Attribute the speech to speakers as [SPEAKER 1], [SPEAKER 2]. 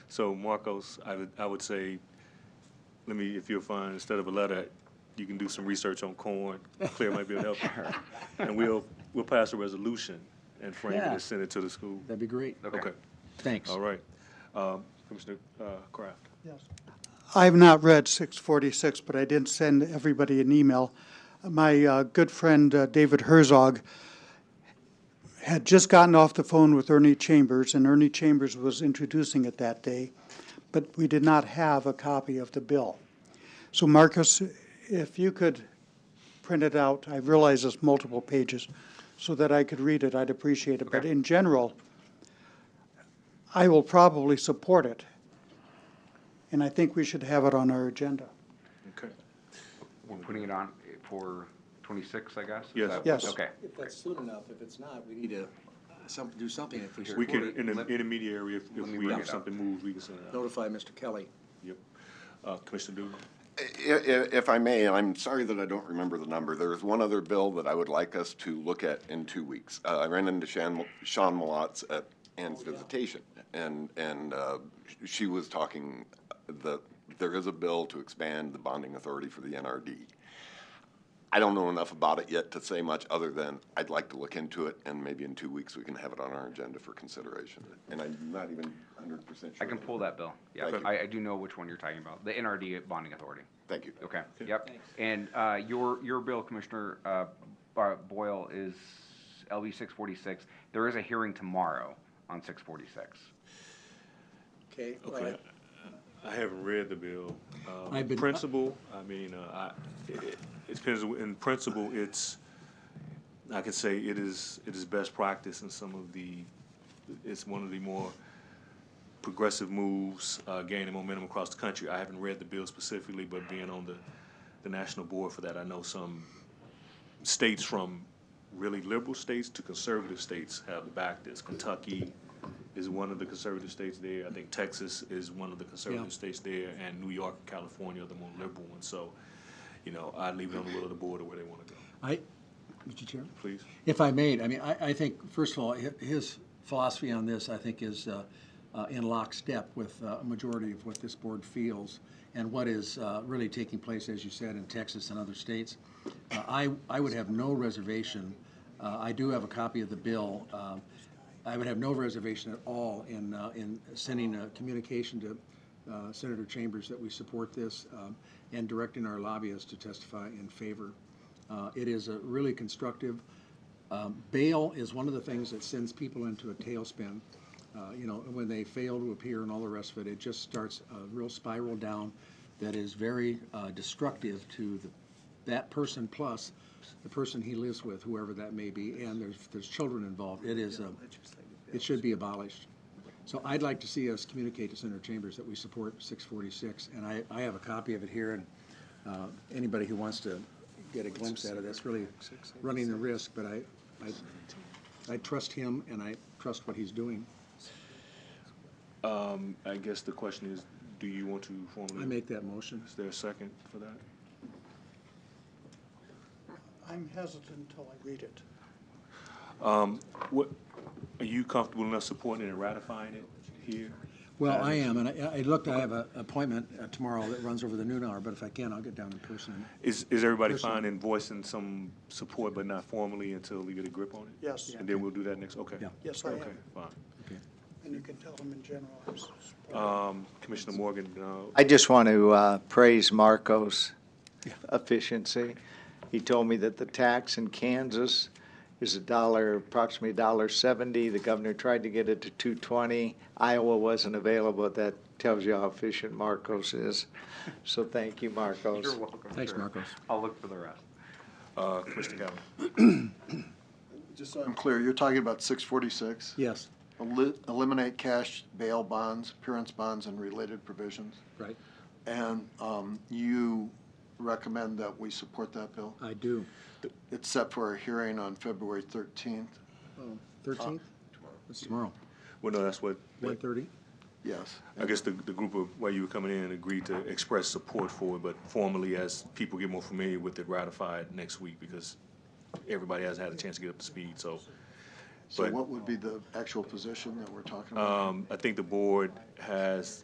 [SPEAKER 1] So Marcos, I would, I would say, let me, if you'll find, instead of a letter, you can do some research on corn. Claire might be able to help you. And we'll, we'll pass a resolution and frame it
[SPEAKER 2] Yeah.
[SPEAKER 1] and send it to the school.
[SPEAKER 2] That'd be great.
[SPEAKER 1] Okay,
[SPEAKER 2] Thanks.
[SPEAKER 1] all right. Um, Commissioner uh, Kraft?
[SPEAKER 3] I've not read 646, but I did send everybody an email. My uh, good friend uh, David Herzog had just gotten off the phone with Ernie Chambers, and Ernie Chambers was introducing it that day, but we did not have a copy of the bill. So Marcus, if you could print it out, I realize it's multiple pages, so that I could read it, I'd appreciate it. But in general, I will probably support it and I think we should have it on our agenda.
[SPEAKER 1] Okay.
[SPEAKER 4] We're putting it on for twenty-six, I guess? Is
[SPEAKER 1] Yes.
[SPEAKER 4] that-
[SPEAKER 3] Yes.
[SPEAKER 4] Okay.
[SPEAKER 2] If that's soon enough, if it's not, we need to, some, do something if we
[SPEAKER 1] We
[SPEAKER 2] support
[SPEAKER 1] can,
[SPEAKER 2] it.
[SPEAKER 1] in the
[SPEAKER 4] Let-
[SPEAKER 1] intermediary, if, if we
[SPEAKER 4] me bring
[SPEAKER 1] have
[SPEAKER 4] it up.
[SPEAKER 1] something moved, we can send it out.
[SPEAKER 2] Notify Mr. Kelly.
[SPEAKER 1] Yep. Uh, Commissioner Dugan?
[SPEAKER 5] If, if I may, and I'm sorry that I don't remember the number, there is one other bill that I would like us to look at in two weeks. Uh, I ran into Sean, Sean Malotz at Ann's visitation, and, and, uh, she was talking that there is a bill to expand the bonding authority for the NRD. I don't know enough about it yet to say much, other than I'd like to look into it, and maybe in two weeks, we can have it on our agenda for consideration. And I'm not even hundred percent
[SPEAKER 4] I
[SPEAKER 5] sure.
[SPEAKER 4] can pull that bill. Yeah,
[SPEAKER 5] Thank you.
[SPEAKER 4] I, I do know which one you're talking about, the NRD bonding authority.
[SPEAKER 5] Thank you.
[SPEAKER 4] Okay, yep. And, uh, your, your bill, Commissioner, uh, Bo- Boyle is LB six forty-six. There is a hearing tomorrow on six forty-six.
[SPEAKER 2] Okay, all
[SPEAKER 1] Okay.
[SPEAKER 2] right.
[SPEAKER 1] I haven't read the bill. Um,
[SPEAKER 2] I've been-
[SPEAKER 1] Principle, I mean, uh, I, it, it depends, in principle, it's, I could say it is, it is best practice in some of the, it's one of the more progressive moves, uh, gaining momentum across the country. I haven't read the bill specifically, but being on the, the national board for that, I know some states from really liberal states to conservative states have backed this. Kentucky is one of the conservative states there. I think Texas is one of the conservative states there, and New York and California are the more liberal ones. So, you know, I leave it on the will of the board or where they want to go.
[SPEAKER 6] I, Mr. Chairman,
[SPEAKER 1] Please.
[SPEAKER 6] if I may, I mean, I, I think, first of all, hi- his philosophy on this, I think, is uh, uh, in lockstep with uh, a majority of what this board feels and what is uh, really taking place, as you said, in Texas and other states. Uh, I, I would have no reservation, uh, I do have a copy of the bill. um, I would have no reservation at all in, uh, in sending a communication to uh, Senator Chambers that we support this um, and directing our lobbyists to testify in favor. Uh, It is a really constructive. Um, Bail is one of the things that sends people into a tailspin. Uh, You know, when they fail to appear and all the rest of it, it just starts a real spiral down that is very uh, destructive to the, that person plus the person he lives with, whoever that may be, and there's, there's children involved. It is a, it should be abolished. So I'd like to see us communicate to Senator Chambers that we support 646, and I, I have a copy of it here, and uh, anybody who wants to get a glimpse at it, that's really running the risk, but I, I, I trust him and I trust what he's doing.
[SPEAKER 1] Um, I guess the question is, do you want to formally?
[SPEAKER 6] I make that motion.
[SPEAKER 1] Is there a second for that?
[SPEAKER 3] I'm hesitant until I read it.
[SPEAKER 1] What, are you comfortable enough supporting and ratifying it here?
[SPEAKER 6] Well, I am, and I, I looked, I have an appointment uh, tomorrow that runs over the noon hour, but if I can, I'll get down in person.
[SPEAKER 1] Is, is everybody
[SPEAKER 6] Personally.
[SPEAKER 1] fine in voicing some support, but not formally until we get a grip on it?
[SPEAKER 3] Yes.
[SPEAKER 1] And then we'll do that next, okay?
[SPEAKER 6] Yeah.
[SPEAKER 3] Yes, I am.
[SPEAKER 1] Okay, fine.
[SPEAKER 3] And you can tell them in general. I'm supportive.
[SPEAKER 1] Um, Commissioner Morgan, uh,
[SPEAKER 7] I just want to uh, praise Marco's efficiency. He told me that the tax in Kansas is a dollar, approximately a dollar seventy. The governor tried to get it to two twenty. Iowa wasn't available. That tells you how efficient Marcos is. So thank you, Marcos.
[SPEAKER 4] You're welcome.
[SPEAKER 6] Thanks,
[SPEAKER 4] sir.
[SPEAKER 6] Marcos.
[SPEAKER 4] I'll look for the rest.
[SPEAKER 1] uh, Commissioner Galvin.
[SPEAKER 8] Just so I'm clear, you're talking about six forty-six?
[SPEAKER 6] Yes,
[SPEAKER 8] Eliminate cash bail bonds, appearance bonds, and related provisions.
[SPEAKER 6] right,
[SPEAKER 8] And um, you recommend that we support that bill?
[SPEAKER 6] I do.
[SPEAKER 8] It's set for a hearing on February thirteenth,
[SPEAKER 6] Thirteenth? It's tomorrow,
[SPEAKER 1] Well, no, that's what,
[SPEAKER 6] one thirty?
[SPEAKER 8] yes.
[SPEAKER 1] I guess the, the group of, where you were coming in agreed to express support for it, but formally, as people get more familiar with it, ratify it next week, because everybody has had a chance to get up to speed, so.
[SPEAKER 8] So
[SPEAKER 1] but-
[SPEAKER 8] what would be the actual position that we're talking about?
[SPEAKER 1] Um, I think the board has